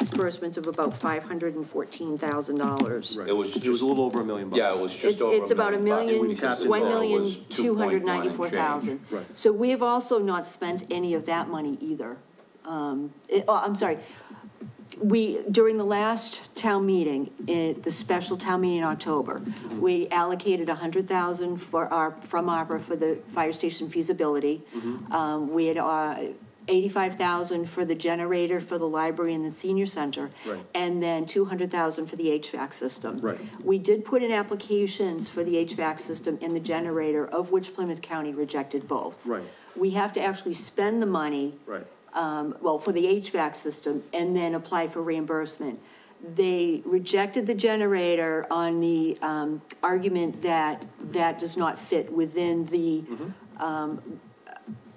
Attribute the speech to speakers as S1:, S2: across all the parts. S1: disbursements of about five hundred and fourteen thousand dollars.
S2: Right.
S3: It was
S2: It was a little over a million bucks.
S3: Yeah, it was
S1: It's,
S3: just over a million.
S1: it's about a million,
S3: bucks, because the
S1: one
S3: total was
S1: million, two hundred
S3: 2.1 and
S1: ninety-four thousand.
S3: change.
S2: Right.
S1: So we have also not spent any of that money either. Um, it, oh, I'm sorry. We, during the last town meeting, it, the special town meeting in October, we allocated a hundred thousand for our, from ARPA for the fire station feasibility. Um, we had, uh, eighty-five thousand for the generator for the library and the senior center.
S2: Right.
S1: And then two hundred thousand for the HVAC system.
S2: Right.
S1: We did put in applications for the HVAC system and the generator, of which Plymouth County rejected both.
S2: Right.
S1: We have to actually spend the money.
S2: Right.
S1: Um, well, for the HVAC system and then apply for reimbursement. They rejected the generator on the, um, argument that that does not fit within the,
S2: Mm-hmm.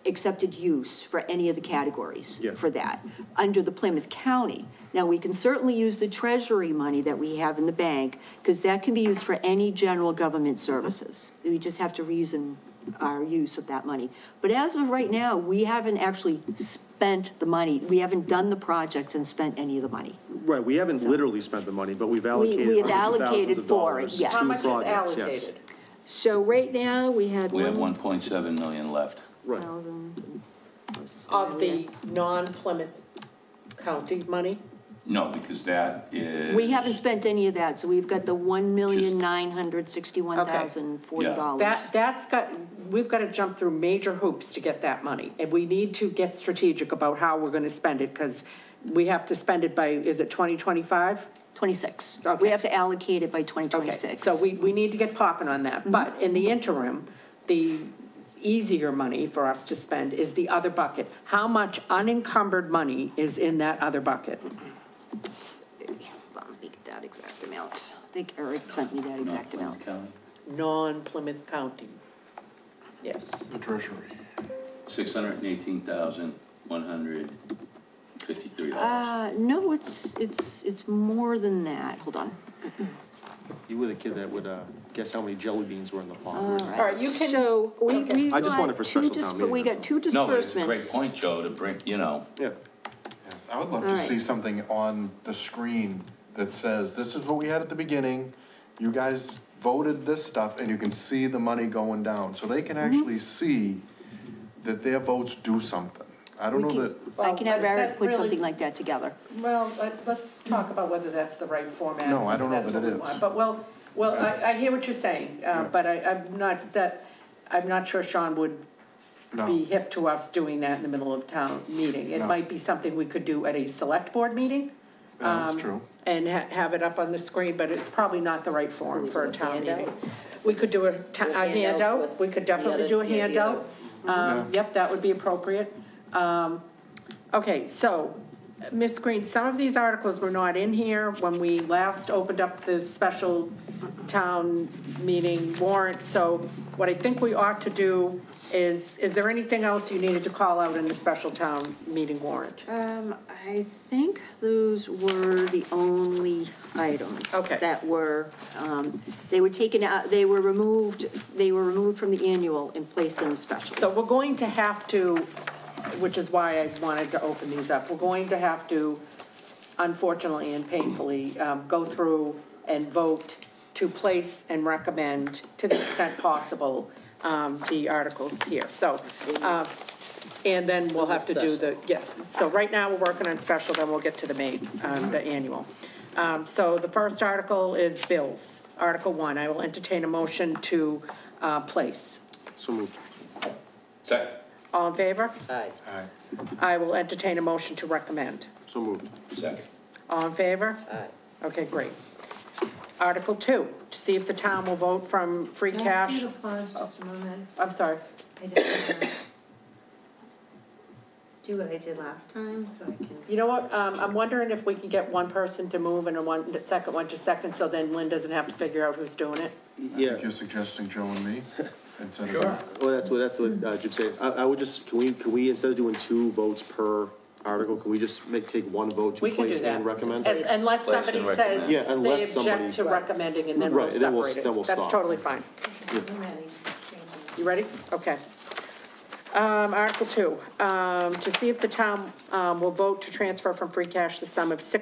S1: accepted use for any of the categories
S2: Yeah.
S1: for that, under the Plymouth County. Now, we can certainly use the treasury money that we have in the bank, because that can be used for any general government services. We just have to reason our use of that money. But as of right now, we haven't actually spent the money, we haven't done the projects and spent any of the money.
S2: Right, we haven't literally spent the money, but we've allocated
S1: we have
S2: hundreds of
S1: allocated
S2: thousands of
S1: for it,
S2: dollars
S1: yes.
S2: to
S1: How
S4: much is
S2: projects, yes.
S4: allocated?
S1: So right now, we had
S3: We have
S1: one
S3: one point seven million left.
S2: Right,
S1: thousand.
S4: Of the non-Plymouth County money?
S3: No, because that is.
S1: We haven't spent any of that, so we've got the one million nine hundred sixty-one thousand forty dollars.
S4: That, that's got, we've got to jump through major hoops to get that money. And we need to get strategic about how we're going to spend it because we have to spend it by, is it 2025?
S1: 26.
S4: Okay.
S1: We have to allocate it by
S4: Okay,
S1: 2026.
S4: so we, we need to get popping on that, but in the interim, the easier money for us to spend is the other bucket. How much unencumbered money is in that other bucket?
S1: Hold on, Let me get that exact amount. I think Eric sent me that exact amount.
S4: Non-Plymouth County. Yes.
S3: Six hundred and eighteen thousand, one hundred fifty-three dollars.
S1: Uh, no, it's, it's, it's more than that. Hold on.
S2: you were the kid that would, uh, guess how many jelly beans were in the
S1: All
S2: pond.
S1: right.
S4: you can-
S1: So we, we.
S2: I just wanted for special town meeting,
S1: We
S2: that's
S1: got
S2: all.
S1: two
S3: No, but
S1: Uh, disbursements.
S3: it's a great point, Joe, to bring, you know,
S2: Yeah,
S5: Yeah, I would love
S1: All
S5: to
S1: right.
S5: see something on the screen that says, this is what we had at the beginning, you guys voted this stuff, and you can see the money going down, so they can
S1: Mm-hmm.
S5: actually see that their votes do something. I don't know
S1: We can-
S5: that,
S1: I
S4: Well,
S1: can have
S4: that-
S1: Eric
S4: that
S1: put
S4: really-
S1: something like that together.
S4: Well, let, let's talk about whether that's the right format.
S5: No, I don't know
S4: That's
S5: that it
S4: what we
S5: is.
S4: want. But well, well, I, I hear what you're saying, uh, but I, I'm not, that, I'm not sure Sean would be
S5: no,
S4: hip to us doing that in the middle of town meeting. It
S5: No.
S4: might be something we could do at a select board meeting.
S5: Yeah, that's
S4: um,
S5: true.
S4: And ha- have it up on the screen, but it's probably not the right form for a town meeting. We could do a, ta- a handout, we could definitely do a handout. Um, yep, that would be appropriate. Um, okay, so, Ms. Green, some of these articles were not in here when we last opened up the special town meeting warrant, so what I think we ought to do is, is there anything else you needed to call out in the special town meeting warrant?
S1: Um, I think those were the only items.
S4: Okay.
S1: That were, um, they were taken out, they were removed, they were removed from the annual and placed in the special.
S4: So we're going to have to, which is why I wanted to open these up, we're going to have to, unfortunately and painfully, um, go through and vote to place and recommend, to the extent possible, um, the articles here. So, uh, and then we'll have to do the, yes, so right now, we're working on special, then we'll get to the main, um, the annual. Um, so the first article is bills, Article One. I will entertain a motion to, uh, place.
S2: so moved.
S3: second,
S4: All in favor?
S5: Aye.
S4: I will entertain a motion to recommend.
S2: So moved.
S3: second,
S4: All in favor? Aye. Okay, great. Article two, to see if the town will vote from free
S6: Can I ask
S4: cash.
S6: you to pause just a moment?
S4: I'm sorry.
S6: I just wanna Do what I did last time, so I can.
S4: You know what, um, I'm wondering if we can get one person to move and a one, the second one to second, so then Lynn doesn't have to figure out who's doing it.
S2: Yeah,
S5: If you're suggesting Joe and me, instead of.
S2: well, that's what, that's what uh, Jim said. I, I would just, can we, can we, instead of doing two votes per article, can we just make, take one vote
S4: We
S2: to
S4: can do
S2: place
S4: that.
S2: and recommend?
S4: As- Unless
S3: Place and
S4: somebody
S3: recommend.
S4: says
S2: Yeah,
S4: they
S2: unless
S4: object to
S2: somebody-
S4: recommending and then we'll
S2: Right, then we'll-
S4: separate
S2: then we'll
S4: it. That's
S2: stop.
S4: totally fine.
S6: I'm ready. Thank you.
S4: You ready? Okay. Um, Article two, um, to see if the town, um, will vote to transfer from free cash the sum of six.